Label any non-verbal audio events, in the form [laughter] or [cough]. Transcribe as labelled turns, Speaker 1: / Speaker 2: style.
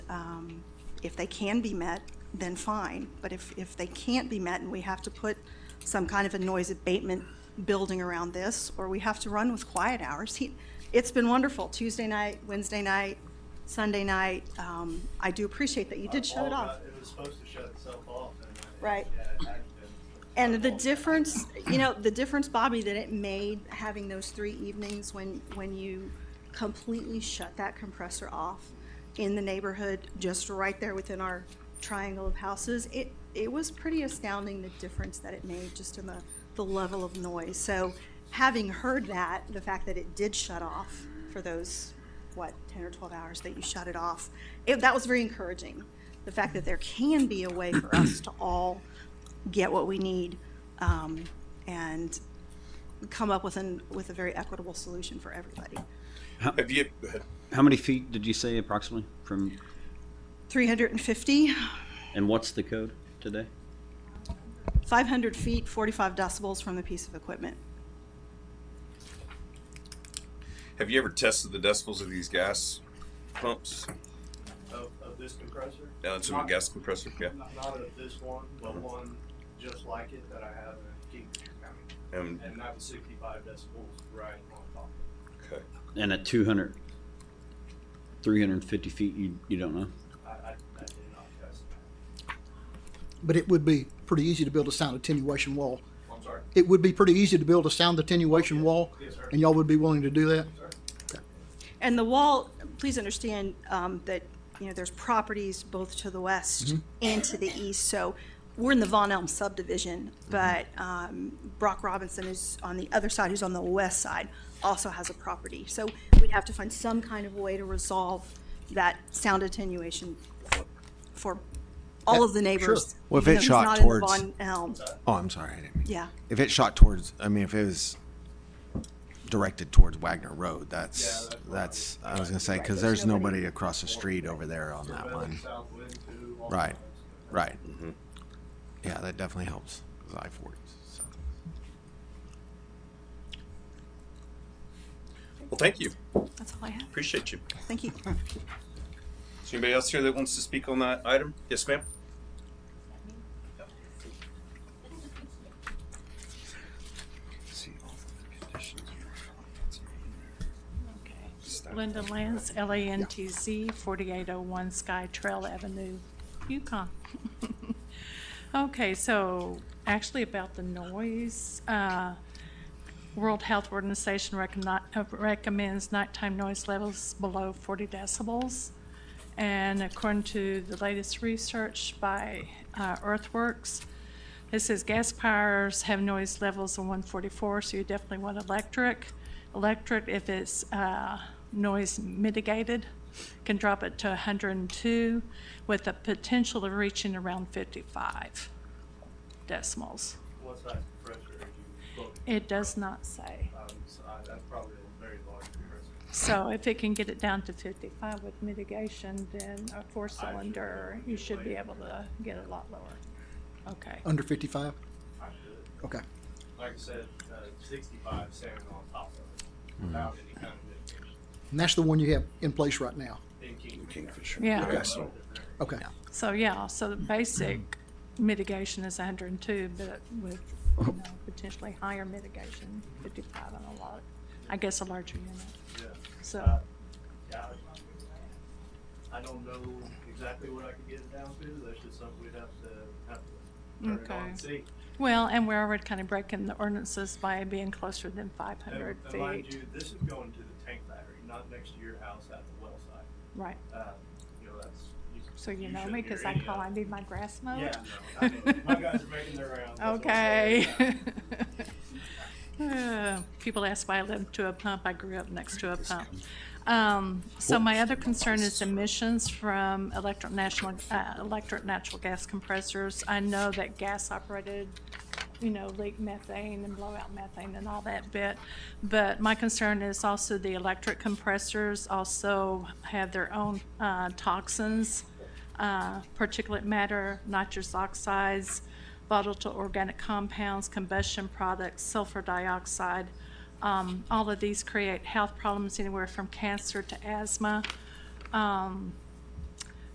Speaker 1: Um, If they can be met, then fine, but if, if they can't be met and we have to put some kind of a noise abatement building around this, or we have to run with quiet hours, he, it's been wonderful, Tuesday night, Wednesday night, Sunday night, um, I do appreciate that you did shut it
Speaker 2: All
Speaker 1: off.
Speaker 2: got- It was supposed to shut itself off. and it-
Speaker 1: Right.
Speaker 2: yeah, it hadn't been.
Speaker 1: And the difference, you know, the difference, Bobby, that it made having those three evenings when, when you completely shut that compressor off in the neighborhood, just right there within our triangle of houses, it, it was pretty astounding the difference that it made just in the, the level of noise. So having heard that, the fact that it did shut off for those, what, ten or twelve hours that you shut it off, it, that was very encouraging. The fact that there can be a way for us to all get what we need um, and come up with an with a very equitable solution for everybody.
Speaker 3: Have you? Go ahead.
Speaker 4: How many feet did you say approximately from,
Speaker 1: 350,
Speaker 4: and what's the code today?
Speaker 1: 500 feet, 45 decibels from the piece of equipment.
Speaker 3: Have you ever tested the decibels of these gas pumps?
Speaker 2: Of, of this compressor?
Speaker 3: Now it's a
Speaker 2: Not-
Speaker 3: gas compressor. Yeah.
Speaker 2: Not not of this one, but one just like it that I have in Kingfisher County.
Speaker 3: Um,
Speaker 2: And that was sixty-five decibels right on top.
Speaker 3: okay.
Speaker 4: And at 200, 350 feet, you, you don't know?
Speaker 2: I, I, I did not test that.
Speaker 5: but it would be pretty easy to build a sound attenuation wall.
Speaker 2: I'm sorry.
Speaker 5: It would be pretty easy to build a sound attenuation wall,
Speaker 2: Yes, sir.
Speaker 5: and y'all would be willing to do that?
Speaker 1: And the wall, please understand um, that, you know, there's properties both to the
Speaker 6: Mm-hmm.
Speaker 1: west and to the east, so we're in the Von Elm subdivision,
Speaker 6: Mm-hmm.
Speaker 1: but um, Brock Robinson is on the other side, who's on the west side, also has a property. So we'd have to find some kind of way to resolve that sound attenuation for- for all of the neighbors.
Speaker 6: Well, if
Speaker 1: even
Speaker 6: it
Speaker 1: though he's
Speaker 6: shot
Speaker 1: not in the
Speaker 6: towards-
Speaker 1: Von Elm,
Speaker 6: Oh, I'm sorry. I didn't mean.
Speaker 1: yeah.
Speaker 6: If it shot towards, I mean, if it was directed towards Wagner Road, that's
Speaker 2: Yeah,
Speaker 6: that's. I was gonna say because there's nobody across the street over there on that
Speaker 2: Prevent
Speaker 6: one.
Speaker 2: South wind too. all
Speaker 6: Right,
Speaker 2: kinds.
Speaker 6: right. Yeah, that definitely helps. Cause I forties. So.
Speaker 3: Well, thank you.
Speaker 1: That's all I have.
Speaker 3: Appreciate you.
Speaker 1: Thank you.
Speaker 3: Is there anybody else here that wants to speak on that item? Yes, ma'am.
Speaker 7: Linda Lance, L-A-N-T-Z, 4801 Sky Trail Avenue, Yukon. [laughs] Okay, so actually about the noise, uh, World Health Organization recogni- uh, recommends nighttime noise levels below 40 decibels. And according to the latest research by uh, Earthworks, it says gas powers have noise levels of 144, so you definitely want electric. Electric, if it's uh, noise mitigated, can drop it to 102 with the potential of reaching around 55 decimals.
Speaker 2: What size compressor are you booked?
Speaker 7: It does not say.
Speaker 2: Um, so I- that's probably a very large compressor.
Speaker 7: So if it can get it down to 55 with mitigation, then a four-cylinder, you should be able to get it a lot lower. Okay.
Speaker 5: Under fifty-five?
Speaker 2: I should,
Speaker 5: Okay.
Speaker 2: like I said, uh, sixty-five sound on top of it without any kind of mitigation.
Speaker 5: And that's the one you have in place right now?
Speaker 2: In Kingfisher.
Speaker 7: Yeah,
Speaker 5: Okay.
Speaker 7: so yeah, so the basic mitigation is 102, but with, you know, potentially higher mitigation, 55 on a lot, I guess a larger unit. So,
Speaker 2: Uh, Yeah, I I don't know exactly what I could get it down to, that's just something we'd have to, have to turn it on and see.
Speaker 7: Okay. well, and we're already kind of breaking the ordinances by being closer than
Speaker 2: And
Speaker 7: 500
Speaker 2: and mind
Speaker 7: feet.
Speaker 2: you, this is going to the tank battery, not next to your house at the well site.
Speaker 7: Right,
Speaker 2: Uh, You know, that's.
Speaker 7: so you know
Speaker 2: shouldn't
Speaker 7: me
Speaker 2: hear
Speaker 7: because I
Speaker 2: any
Speaker 7: call,
Speaker 2: of
Speaker 7: I need my grass mowed.
Speaker 2: Yeah, no, I mean,
Speaker 7: [laughs]
Speaker 2: my guys are making their rounds. that's what I'm saying. [laughs]
Speaker 7: Okay. Uh, People ask why I live to a pump. I grew up next to a pump. Um, So my other concern is emissions from electric national, uh, electric natural gas compressors. I know that gas operated, you know, leak methane and blow out methane and all that bit. But my concern is also the electric compressors also have their own uh, toxins, uh, particulate matter, nitrous oxides, volatile organic compounds, combustion products, sulfur dioxide. Um, all of these create health problems anywhere from cancer to asthma. Um,